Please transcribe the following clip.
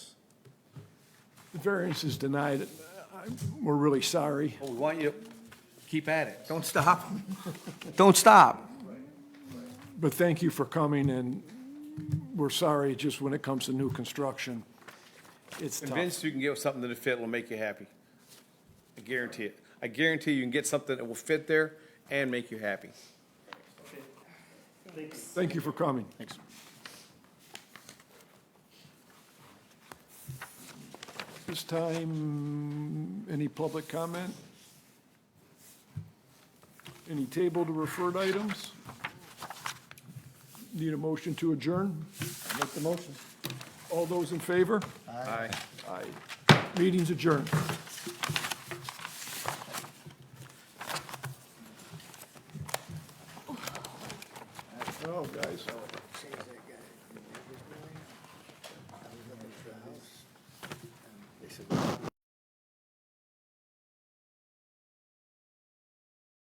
the variance is denied. I- We're really sorry. Well, We want you to keep at it. Don't stop. Don't stop. But thank you for coming, and we're sorry, just when it comes to new construction, it's tough. Convinced you can get something that'll fit, will make you happy. I guarantee it. I guarantee you can get something that will fit there and make you happy. Thank you for coming. Thanks. This time, any public comment? Any table to referred items? Need a motion to adjourn? Make the motion. All those in favor? Aye. Aye. Meeting's adjourned. Oh, guys.